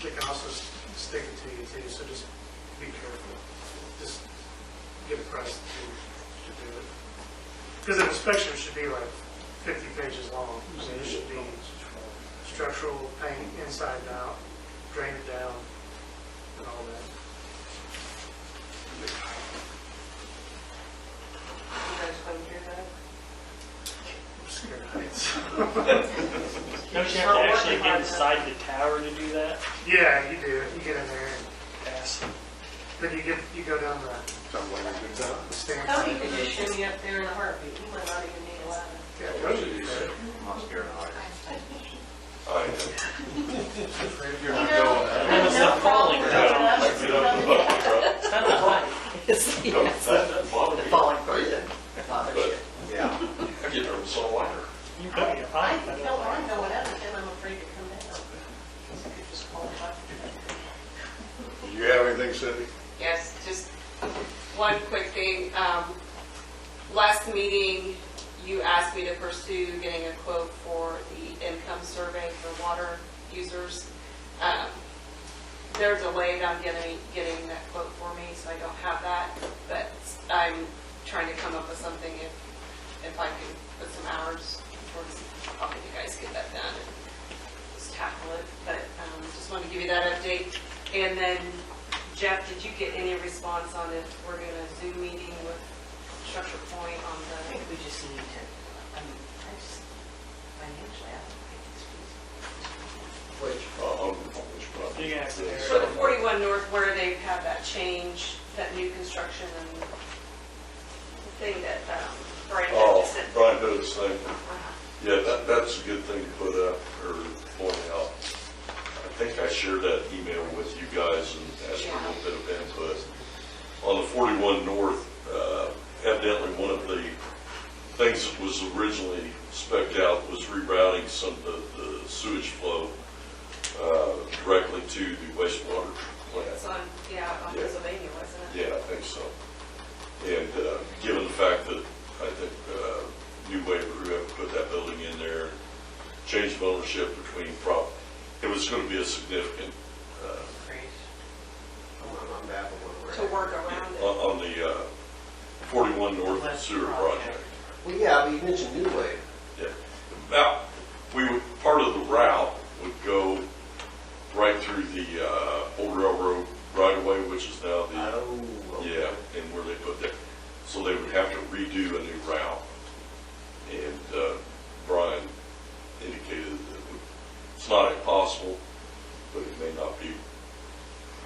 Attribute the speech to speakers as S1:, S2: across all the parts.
S1: chicken also is sticking to you too, so just be careful. Just get pressed to, to do it. Because an inspection should be like fifty pages long. I mean, it should be structural paint inside and out, drain it down, and all that.
S2: You guys want to hear that?
S1: I'm scared of heights.
S3: Don't you have to actually get inside the tower to do that?
S1: Yeah, you do. You get in there, and
S3: Pass.
S1: then you get, you go down the
S4: Sounds like a good time.
S1: stairs.
S5: Oh,
S2: Tony could just shoo me up there in a heartbeat, he might not even need a ladder.
S1: Yeah, go to it.
S4: I'm not scared of heights.
S2: You know, I
S3: That
S2: have
S3: was
S2: no
S3: not
S2: problem
S3: falling,
S2: with
S3: no.
S2: that.
S3: It's not a height.
S6: Yes, yes. The falling person bothers you.
S4: Yeah.
S7: I get nervous all winter.
S3: You got me a
S2: I
S3: height.
S2: can tell I'm going up, and I'm afraid to come down. So I could just fall off.
S4: You have anything, Cindy?
S5: Yes, just one quick thing. Um, Last meeting, you asked me to pursue getting a quote for the income survey for water users. Um, They're delayed on getting, getting that quote for me, so I don't have that, but I'm trying to come up with something if, if I can put some hours towards helping you guys get that done just tackle it, but um, just wanted to give you that update. And then Jeff, did you get any response on if we're doing a Zoom meeting with Structure Point on
S6: I
S5: the,
S6: think we just need to, I mean, I just, financially, I don't think it's feasible.
S4: Which?
S7: Uh, on which property?
S3: You can ask Eric.
S5: for the 41 North where they have that change, that new construction and thing that um, Brian had just
S7: Oh,
S5: said?
S7: Brian did his thing.
S5: Uh-huh.
S7: Yeah, that, that's a good thing to put up or point out. I think I shared that email with you guys and asked for a little bit of input. On the 41 North, uh, evidently one of the things that was originally spec'd out was rerouting some of the- the sewage flow uh, directly to the wastewater plant.
S5: It's on, yeah, on
S7: Yeah.
S5: Pennsylvania, wasn't it?
S7: Yeah, I think so. And uh, given the fact that I think uh, New Wave, whoever put that building in there, changed ownership between prop, it was going to be a significant, uh,
S4: I'm baffled where we're at.
S5: To work around it.
S7: on on the uh, 41 North Sewer Project.
S4: Well, yeah, but you mentioned New Wave.
S7: Yeah. Now, we would, part of the route would go right through the uh, old railroad right away, which is now the
S4: Oh.
S7: Yeah, and where they put that, so they would have to redo a new route. And uh, Brian indicated that it would- it's not impossible, but it may not be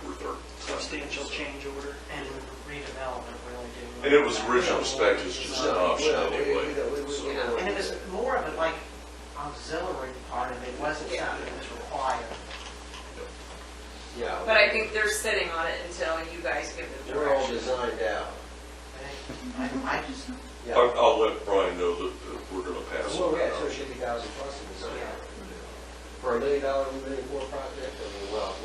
S7: worth our time.
S3: Substantial change order.
S6: And redevelopment really do.
S7: And it was original spec, it's just uh, an option
S4: Well, we- we-
S7: anyway.
S4: we- we-
S7: so-
S6: And it was more of a like auxiliary part of it, It wasn't something that was required.
S4: Yeah.
S5: But I think they're sitting on it until you guys give them
S4: We're all
S5: direction.
S4: designed out.
S6: I, I just,
S7: I-
S3: Oh.
S7: I'll let Brian know that that we're gonna pass
S4: Well,
S7: on
S4: yeah, so it
S7: that.
S4: should be thousand plus in design. For a million dollar, a million four project, I mean, well,
S7: I'll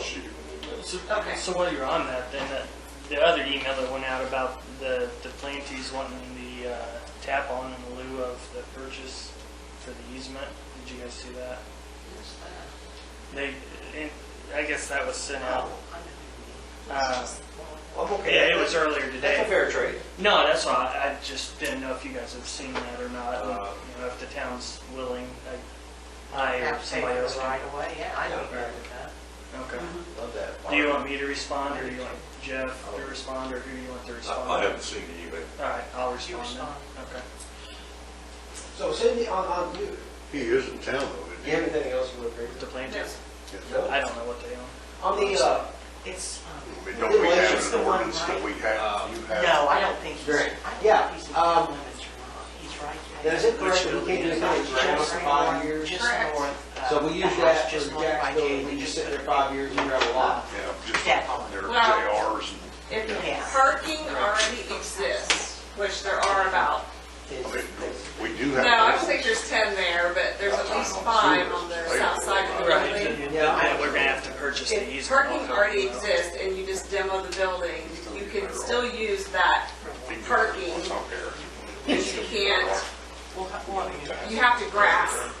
S7: shoot you an email.
S3: So,
S5: Okay.
S3: so while you're on that, then that, the other email that went out about the, the plantees wanting the uh, tap on in lieu of the purchase for the easement, did you guys see that? They, and I guess that was sent out.
S6: Oh,
S3: Uh,
S4: I'm okay.
S3: Yeah, it was earlier today.
S4: That's a fair trade.
S3: No, that's why I I just didn't know if you guys have seen that or not, and,
S4: Uh,
S3: you know, if the town's willing, I, I or
S6: have to pay
S3: somebody else
S6: for it
S3: can.
S6: right away, yeah, I don't agree with that.
S3: Okay.
S4: Love that.
S3: Do you want me to respond, or do you want Jeff to respond, or who do you want to respond?
S7: I I haven't seen the email.
S3: All right, I'll
S6: You
S3: respond
S6: respond.
S3: then. Okay.
S4: So Cindy, on, on you, do
S8: He is in town though,
S4: you
S8: isn't
S4: have anything else you want to bring?
S3: The plaintiffs,
S5: There's-
S4: No?
S3: I don't know what they own.
S4: On the, uh,
S6: It's, um,
S8: he? I mean, Don't we
S4: It's
S8: have
S6: the
S8: an
S6: one,
S8: ordinance
S6: right?
S8: that we have, you have?
S6: no, I don't think he's, I
S4: Right.
S6: don't
S4: Yeah,
S6: think he's
S4: um,
S6: in the limits or not, he's right there.
S4: Now, is it correct that we can't do anything ground for five years?
S6: Just north, uh,
S4: So we use
S6: the house
S4: that
S6: just
S4: for
S6: north by
S4: Jacksonville,
S6: Jay,
S4: we just sit
S6: put
S4: there
S6: a
S4: five years, you grab a lot.
S6: lot.
S8: Yeah, just
S6: Step on it.
S8: their
S5: Well-
S8: JRs
S5: If
S6: Yeah.
S5: parking already exists, which there are about,
S8: and, I
S4: It's-
S8: mean, we do
S5: no,
S8: have.
S5: I don't think there's 10 there, but there's at least five on the south side of the building.
S3: Right,
S4: Yeah.
S3: that we're gonna have to purchase the
S5: If
S3: easement.
S5: parking already exists and you just demo the building, you can still use that, parking.
S8: It's out there.
S5: but you can't,
S6: We'll, we'll,
S5: you have to grass.